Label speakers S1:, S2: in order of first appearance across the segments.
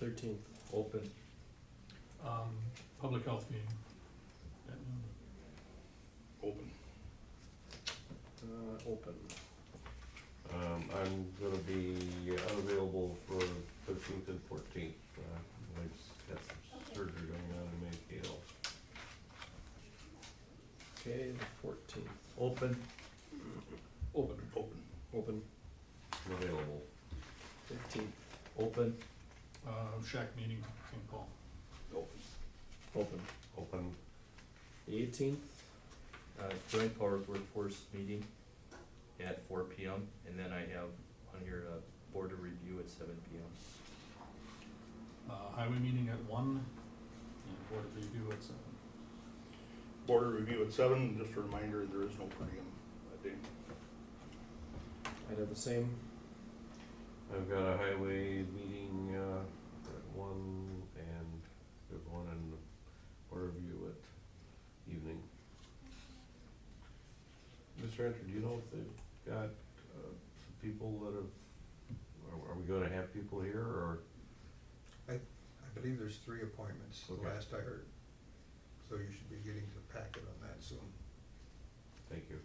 S1: Thirteenth,
S2: open,
S3: um, public health meeting. at noon.
S4: Open.
S1: uh, open.
S2: um, I'm gonna be unavailable for thirteenth and fourteenth, uh, I just got some surgery going on in Mayfield.
S1: Okay, the fourteenth,
S2: Open,
S4: Open. Open.
S1: open,
S2: I'm available,
S1: fifteenth,
S2: open,
S3: Uh, shack meeting, St. Paul.
S4: Open.
S1: open.
S2: open,
S1: The eighteenth,
S5: Uh, joint powers workforce meeting at four P M, and then I have on here a board of review at seven P M.
S3: Uh, highway meeting at one, and board of review at seven.
S4: Border review at seven, just a reminder, there is no per diem that day.
S1: I did the same,
S2: I've got a highway meeting, uh, at one, and there's one in Water View at evening. Mr. Hunter, do you know if they've got, uh, some people that have, are, are we gonna have people here, or?
S6: I believe there's three appointments, the
S2: Okay.
S6: last I heard. So you should be getting the packet on that soon.
S2: Thank you.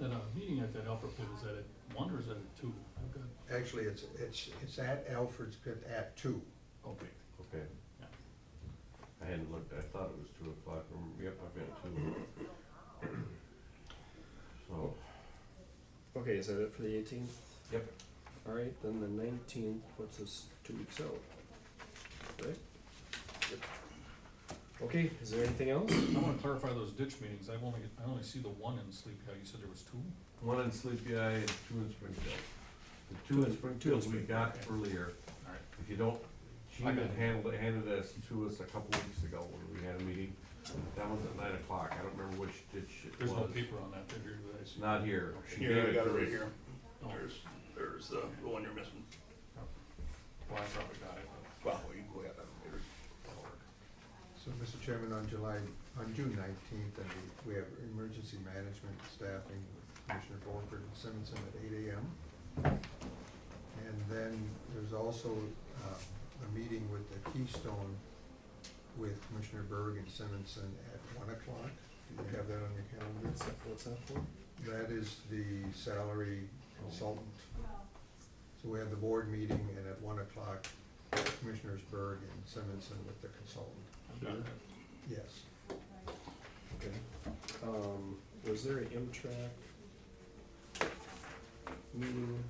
S3: That, uh, meeting at that Alpha Pit, is that at one or is that at two? I've got,
S6: Actually, it's, it's, it's at Alfred's Pit at two.
S3: okay.
S2: Okay.
S3: Yeah.
S2: I hadn't looked, I thought it was two o'clock, um, yep, I've got two. So,
S1: okay, is that it for the eighteenth?
S2: Yep.
S1: Alright, then the nineteenth puts us two weeks out, right? Okay, is there anything else?
S3: I wanna clarify those ditch meetings, I've only, I only see the one in Sleepy How you said there was two?
S2: one in Sleepy Eye and two in Springfield. The two in Springfield we got earlier.
S3: Alright.
S2: If you don't, she
S3: I
S2: had
S3: got it.
S2: handled, handed this to us a couple weeks ago when we had a meeting. That was at nine o'clock, I don't remember which ditch it
S3: There's no
S2: was.
S3: paper on that, they're here, that I see.
S2: Not here. She
S4: Here,
S2: gave
S4: I got it
S2: to
S4: right
S2: us.
S4: here.
S3: Oh,
S4: There's, there's uh, the one you're missing.
S3: Well, I probably got it, but-
S4: Well, you go ahead, I'm here.
S6: So, Mr. Chairman, on July, on June nineteenth, and we- we have emergency management staffing with Commissioner Borford and Simonson at eight AM. And then there's also uh, a meeting with the Keystone with Commissioner Berg and Simonson at one o'clock. Do you have that on your calendar?
S1: What's that, what's that for?
S6: That is the salary consultant. So we have the board meeting and at one o'clock, Commissioners Berg and Simonson with the consultant.
S3: I've got that.
S6: Yes.
S1: Okay, um, was there an M-Track meeting